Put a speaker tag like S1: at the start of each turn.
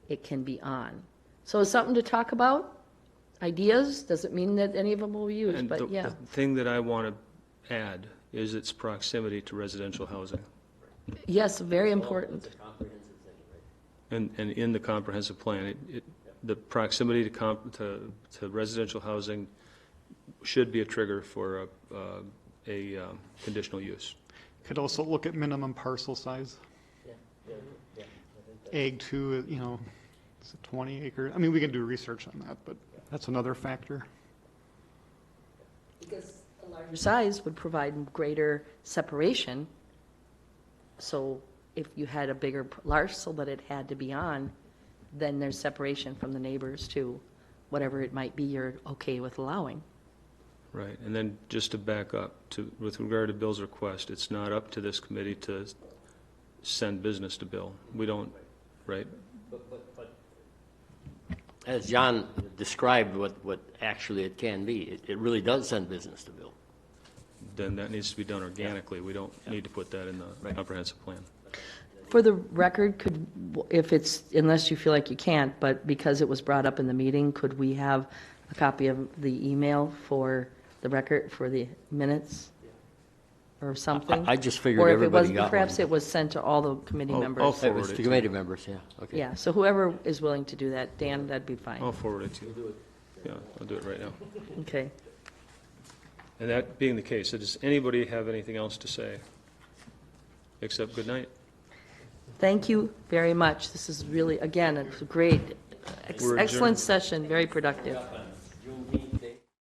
S1: it can be on. So it's something to talk about. Ideas, doesn't mean that any of them will be used,
S2: And the
S1: but yeah.
S2: the thing that I want to add is its proximity to residential housing.
S1: Yes, very important.
S2: And, and in the comprehensive plan, it, it, the proximity to comp, to, to residential housing should be a trigger for a, uh, a um, conditional use.
S3: Could also look at minimum parcel size. Ag two, you know, it's a 20 acre, I mean, we can do research on that, but that's another factor.
S1: Because a larger size would provide greater separation. So if you had a bigger p- parcel that it had to be on, then there's separation from the neighbors to whatever it might be you're okay with allowing.
S2: Right, and then just to back up, to, with regard to Bill's request, it's not up to this committee to send business to Bill. We don't, right?
S4: As John described what, what actually it can be, it, it really does send business to Bill.
S2: Then that needs to be done organically. We don't need to put that in the comprehensive plan.
S1: For the record, could, if it's, unless you feel like you can't, but because it was brought up in the meeting, could we have a copy of the email for the record, for the minutes? Or something?
S4: I just figured
S1: Or if it
S4: everybody
S1: wasn't-
S4: got one.
S1: Perhaps it was sent to all the committee
S2: I'll-
S1: members.
S2: I'll
S4: That
S2: forward
S4: was
S2: it
S4: the
S2: to
S4: committee members, yeah, okay.
S1: Yeah, so whoever is willing to do that, Dan, that'd be fine.
S2: I'll forward it to you. Yeah, I'll do it right now.
S1: Okay.
S2: And that being the case, does anybody have anything else to say? Except good night.
S1: Thank you very much. This is really, again, it's a great, ex-
S2: We're adjourned.
S1: excellent session, very productive.